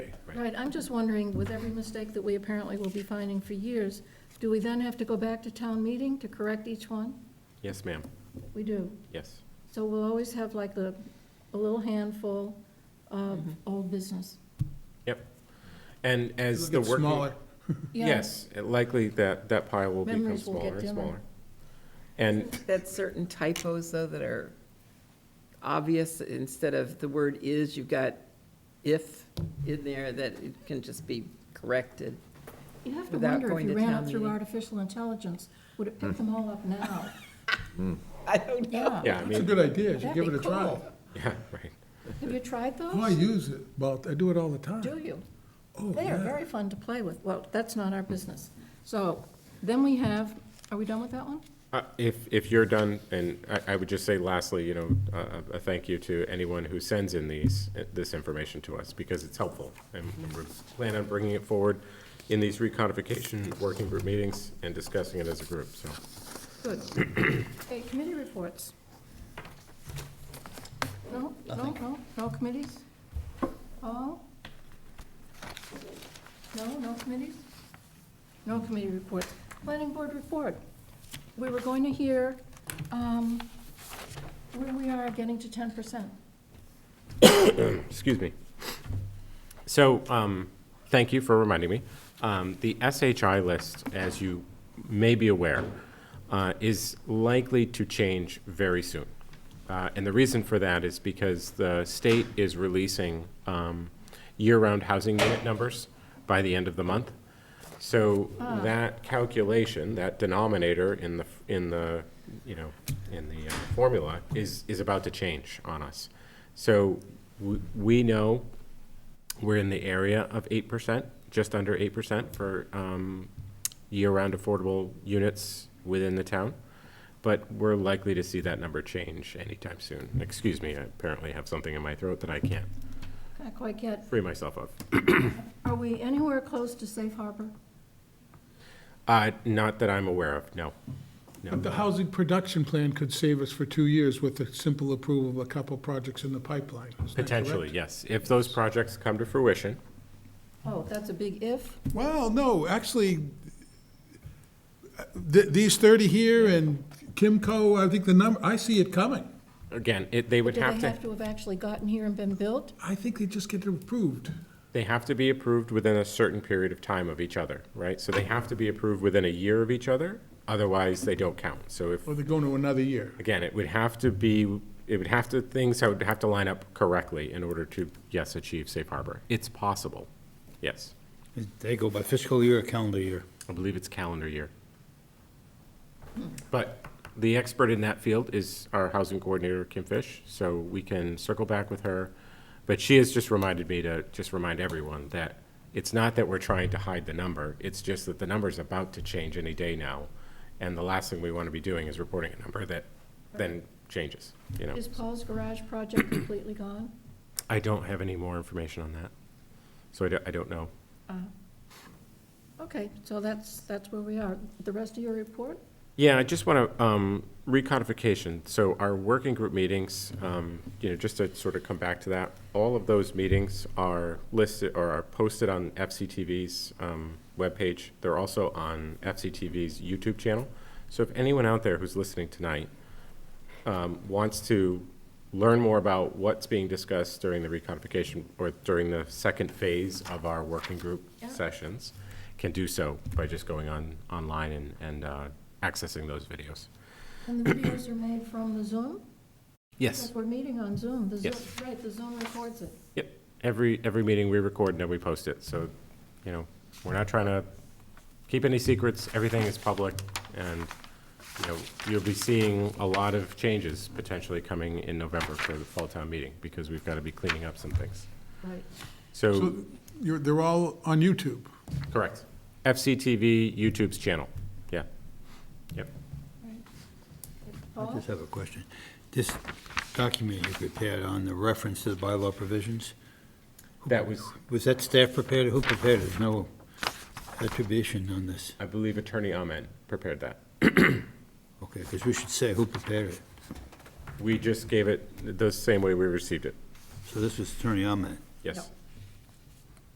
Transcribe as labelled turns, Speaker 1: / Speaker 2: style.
Speaker 1: Right, I'm just wondering, with every mistake that we apparently will be finding for years, do we then have to go back to town meeting to correct each one?
Speaker 2: Yes, ma'am,
Speaker 1: We do.
Speaker 2: yes.
Speaker 1: So we'll always have like a, a little handful of old business.
Speaker 2: And as the
Speaker 3: It'll get
Speaker 2: working,
Speaker 3: smaller.
Speaker 1: Yeah.
Speaker 2: yes, likely that, that pile will become
Speaker 1: Memories will get
Speaker 2: smaller and
Speaker 1: dimmer.
Speaker 2: smaller. And,
Speaker 4: That's certain typos, though, that are obvious. Instead of the word is, you've got if in there, that it can just be corrected.
Speaker 1: You have to
Speaker 4: Without
Speaker 1: wonder if
Speaker 4: going
Speaker 1: you
Speaker 4: to
Speaker 1: ran
Speaker 4: town
Speaker 1: it through
Speaker 4: meeting. Hmm.
Speaker 1: artificial intelligence, would it pick them all up now?
Speaker 4: I don't know.
Speaker 1: Yeah.
Speaker 2: yeah, I
Speaker 3: It's a
Speaker 2: mean,
Speaker 3: good idea, you should
Speaker 1: That'd
Speaker 3: give
Speaker 1: be
Speaker 3: it a try.
Speaker 1: cool.
Speaker 2: yeah, right.
Speaker 1: Have you tried those?
Speaker 3: Oh, I use it, about, I do it all the
Speaker 1: Do
Speaker 3: time.
Speaker 1: you?
Speaker 3: Oh,
Speaker 1: They are
Speaker 3: yeah.
Speaker 1: very fun to play with. Well, that's not our business. So then we have, are we done with that one?
Speaker 2: Uh, If, if you're done, and I, I would just say lastly, you know, uh, a, a- a thank you to anyone who sends in these, uh, this information to us, because it's helpful. And
Speaker 1: Mm-hmm.
Speaker 2: we plan on bringing it forward in these recodification working group meetings and discussing it as a group, so.
Speaker 1: Good. Okay, committee reports. No, no, no, no committees? All? No, no committees? No committee reports. Planning board report. We were going to hear um, where we are getting to ten percent.
Speaker 2: excuse me. So, um, thank you for reminding me. Um, the SHI list, as you may be aware, uh, is likely to change very soon. Uh, and the reason for that is because the state is releasing, um, year-round housing unit numbers by the end of the month. So that calculation, that denominator in the, in the, you know, in the uh, formula is, is about to change on us. So w- we know we're in the area of eight percent, just under eight percent for um, year-round affordable units within the town. But we're likely to see that number change anytime soon. Excuse me, I apparently have something in my throat that I can't
Speaker 1: Not quite yet.
Speaker 2: free myself of.
Speaker 1: Are we anywhere close to safe harbor?
Speaker 2: Uh, Not that I'm aware of, no. No.
Speaker 3: But the housing production plan could save us for two years with the simple approval of a couple projects in the pipeline. Is that correct?
Speaker 2: Potentially, yes. If those projects come to fruition,
Speaker 1: Oh, that's a big if.
Speaker 3: Well, no, actually, th- these thirty here and Kimco, I think the number, I see it coming.
Speaker 2: again, it, they would
Speaker 1: Do they
Speaker 2: have to,
Speaker 1: have to have actually gotten here and been built?
Speaker 3: I think they just get it approved.
Speaker 2: they have to be approved within a certain period of time of each other, right? So they have to be approved within a year of each other, otherwise they don't count. So if,
Speaker 3: Or they're going to another year.
Speaker 2: again, it would have to be, it would have to, things would have to line up correctly in order to, yes, achieve safe harbor. It's possible, yes.
Speaker 5: They go by fiscal year or calendar year?
Speaker 2: I believe it's calendar year. But the expert in that field is our housing coordinator, Kim Fish, so we can circle back with her. But she has just reminded me to just remind everyone that it's not that we're trying to hide the number, it's just that the number's about to change any day now. And the last thing we want to be doing is reporting a number that then changes, you know?
Speaker 1: Is Paul's garage project completely gone?
Speaker 2: I don't have any more information on that, so I don't, I don't know.
Speaker 1: Okay, so that's, that's where we are. The rest of your report?
Speaker 2: Yeah, I just want to, um, recodification, so our working group meetings, um, you know, just to sort of come back to that, all of those meetings are listed, or are posted on FCTV's, um, webpage. They're also on FCTV's YouTube channel. So if anyone out there who's listening tonight, um, wants to learn more about what's being discussed during the recodification or during the second phase of our working group
Speaker 1: Yeah.
Speaker 2: sessions, can do so by just going on, online and, and uh, accessing those videos.
Speaker 1: And the videos are made from the Zoom?
Speaker 2: Yes.
Speaker 1: We're meeting on Zoom. The Zoom,
Speaker 2: Yes.
Speaker 1: right, the Zoom records it.
Speaker 2: Yep. Every, every meeting we record and then we post it. So, you know, we're not trying to keep any secrets. Everything is public. And, you know, you'll be seeing a lot of changes potentially coming in November for the fall town meeting because we've got to be cleaning up some things.
Speaker 1: Right.
Speaker 2: So,
Speaker 3: So you're, they're all on YouTube.
Speaker 2: correct. FCTV YouTube's channel. Yeah. Yep.
Speaker 5: I
Speaker 1: Paul?
Speaker 5: just have a question. This document you prepared on the reference to the bylaw provisions,
Speaker 2: That was,
Speaker 5: was that staff prepared? Who prepared it? There's No attribution on this.
Speaker 2: I believe Attorney Ahmed prepared that.
Speaker 5: Okay, because we should say who prepared it.
Speaker 2: We just gave it the same way we received it.
Speaker 5: So this was Attorney Ahmed.
Speaker 2: Yes.